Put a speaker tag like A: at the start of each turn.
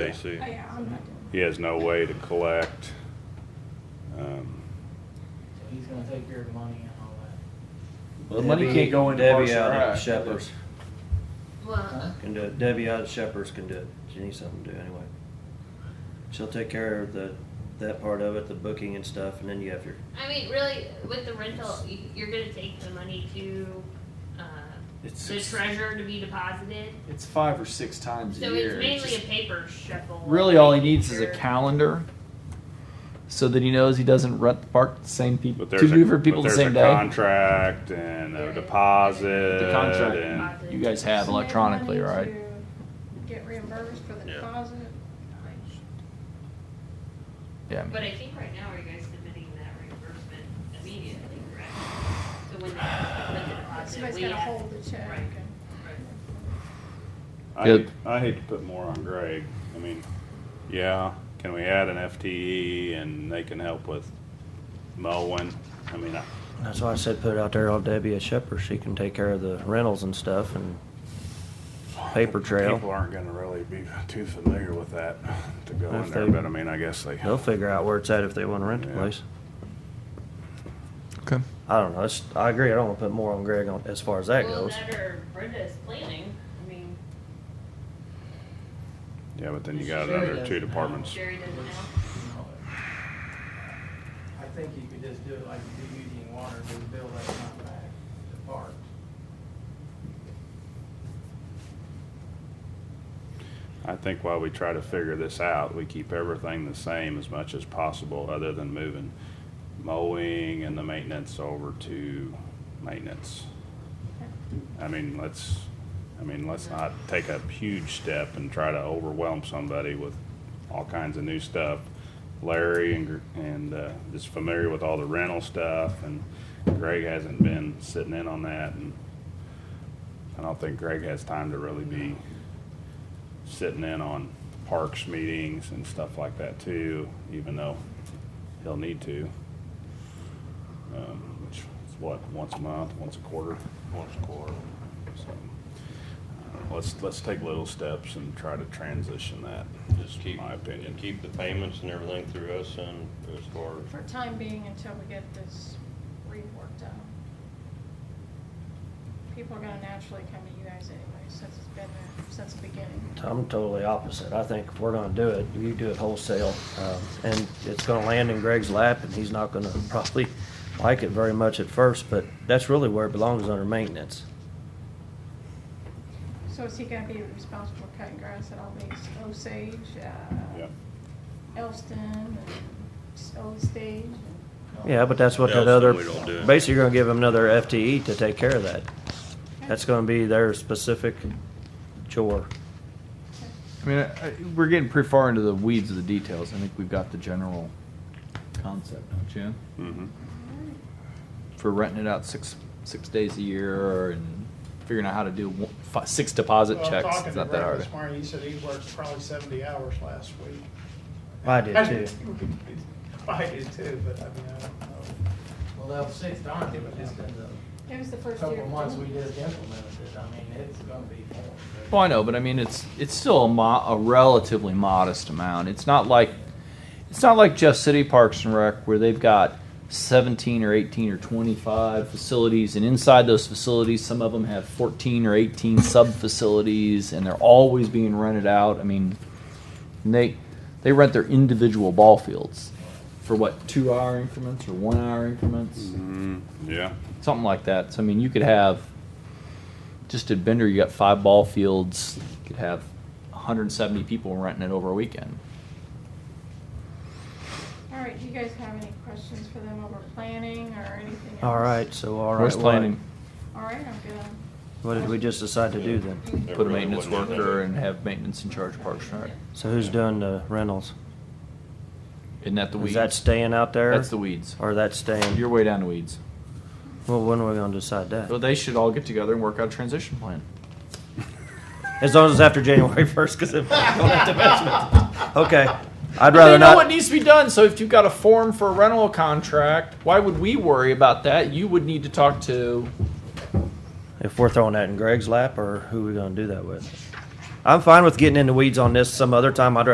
A: JC.
B: Yeah, I'm not doing
A: He has no way to collect. Um,
C: So he's gonna take care of the money and all that.
D: Well, the money can't go into
E: Debbie
D: Parks and
E: out of
D: Rec.
E: Shepherd's
F: Well,
E: can do it. Debbie out of Shepherd's can do it. She needs something to do anyway. She'll take care of the, that part of it, the booking and stuff, and then you have your,
F: I mean, really, with the rental, y- you're gonna take the money to, uh,
D: It's
F: the
D: six,
F: treasurer to be deposited.
D: it's five or six times a
F: So
D: year.
F: it's
D: It's
F: mainly a
D: just-
F: paper shuffle.
G: Really, all he needs is a
F: Sure.
G: calendar, so that he knows he doesn't rent the park to the same people,
A: But
G: two
A: there's a,
G: different people
A: but
G: the
A: there's
G: same
A: a
G: day.
A: contract and
F: There
A: a
F: is.
A: deposit.
G: The contract.
A: and-
F: Deposit.
G: You guys
B: it.
G: have
B: So they
G: electronically,
B: wanted
G: right?
B: to Get reimbursed for the
A: Yeah.
B: deposit.
G: Yeah. I mean,
F: But I think right now, are you guys submitting that reimbursement immediately, correct? So when they, when the deposit,
B: Somebody's
F: we
B: gotta
F: have.
B: hold the check.
F: Right, right.
A: I
G: Yeah.
A: hate, I hate to put more on Greg. I mean, yeah, can we add an FTE and they can help with mowing? I mean, I,
E: that's why I said put it out there on Debbie at Shepherd's. She can take care of the rentals and stuff and paper
A: people
E: trail.
A: aren't gonna really be too familiar with that to go in
E: If
A: there,
E: they-
A: but I mean, I guess they.
E: They'll figure out where it's at if they wanna rent the
A: Yeah.
E: place.
G: okay.
E: I don't know. It's, I agree. I don't wanna put more on Greg on, as far as that
F: Well,
E: goes.
F: that or Brenda's planning, I mean,
A: Yeah, but then you got another two departments.
F: Sherry doesn't know.
C: and all that. I think you could just do it like you do Union Water, do the bill that amount back to park.
A: I think while we try to figure this out, we keep everything the same as much as possible, other than moving mowing and the maintenance over to maintenance. I mean, let's, I mean, let's not take a huge step and try to overwhelm somebody with all kinds of new stuff. Larry and, Gr- and, uh, is familiar with all the rental stuff, and Greg hasn't been sitting in on that, and I don't think Greg has time to really be sitting in on parks meetings and stuff like that too, even though he'll need to. Um, which is what, once a month, once a quarter? Once a quarter. So, I don't know, let's, let's take little steps and try to transition that,
H: Just keep,
A: my opinion.
H: and keep the payments and everything through us and as far as,
B: For time being, until we get this reworked out. People are gonna naturally come to you guys anyway, since it's been there, since the beginning.
E: I'm totally opposite. I think if we're gonna do it, you do it wholesale, um, and it's gonna land in Greg's lap, and he's not gonna probably like it very much at first, but that's really where it belongs, under maintenance.
B: So is he gonna be responsible for cutting grass at all these Osage, uh,
A: Yeah.
B: Elston, and Old Stage? and-
E: Yeah, but that's what
H: Yeah,
E: that
H: so
E: other,
H: we don't do it.
E: basically you're gonna give him another FTE to take care of that. That's gonna be their specific chore.
G: I mean, I, I, we're getting pretty far into the weeds of the details. I think we've got the general concept, don't you?
A: Mm-hmm.
G: For renting it out six six days a year and figuring out how to do one, fi- six deposit
I: Well,
G: checks.
I: talking
G: It's
I: to
G: not that
I: Brett
G: hard.
I: This morning, he said he worked probably seventy hours last week.
E: I did too.
I: I did too, but I mean, I don't know.
C: Well, that was six times, but just in the
B: It was the first year.
C: couple of months we
B: didn't
C: just implemented it, I mean, it's gonna be more. but-
G: Well, I know, but I mean, it's it's still a, mo- a relatively modest amount. It's not like it's not like Jeff City Parks and Rec where they've got 17 or 18 or 25 facilities, and inside those facilities, some of them have 14 or 18 sub facilities, and they're always being rented out. I mean, and they they rent their individual ball fields for what two hour increments or one hour increments
A: Mm-hmm. Yeah,
G: something like that. So I mean, you could have just at Bender, you got five ball fields. You could have 170 people renting it over a weekend.
B: All right, do you guys have any questions for them over planning or anything else?
E: All right, so all right.
G: Where's
E: what-
G: planning?
B: All right, I'm good.
E: What did we just decide to do then?
H: It
G: Put a
H: really
G: maintenance
H: wouldn't be
G: worker
H: there.
G: and have maintenance in charge of Parks and Rec.
E: So who's doing the rentals?
G: Isn't that the
E: Is
G: weeds?
E: that staying out there?
G: That's the weeds.
E: Or that's staying?
G: You're way down to weeds.
E: Well, when are we gonna decide that?
G: So they should all get together and work out a transition plan.
E: As long as it's after January first, because if I don't have to mess with it. Okay, I'd
G: And
E: rather
G: they know what
E: not.
G: needs to be done. So if you've got a form for a rental contract, why would we worry about that? You would need to talk to
E: If we're throwing that in Greg's lap, or who we gonna do that with? I'm fine with getting in the weeds on this some other time. I'd